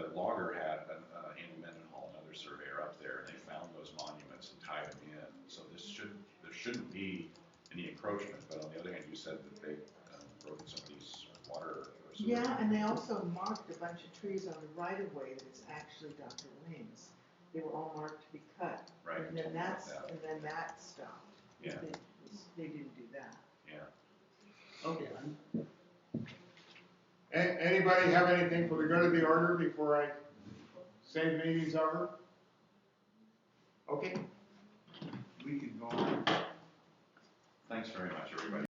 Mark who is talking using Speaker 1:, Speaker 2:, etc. Speaker 1: uh, DEP and the encroachment, but on the other hand, you said that they um, broke somebody's water or something.
Speaker 2: Yeah, and they also marked a bunch of trees on the right of way that's actually Dr. Lane's. They were all marked to be cut.
Speaker 1: Right.
Speaker 2: And then
Speaker 1: something like
Speaker 2: that's,
Speaker 1: that.
Speaker 2: and then that stopped.
Speaker 1: Yeah,
Speaker 2: They, they didn't do that.
Speaker 1: yeah.
Speaker 3: Okay. A- anybody have anything for the good of the order before I say the meeting's over? Okay. We can go on.
Speaker 1: Thanks very much, everybody.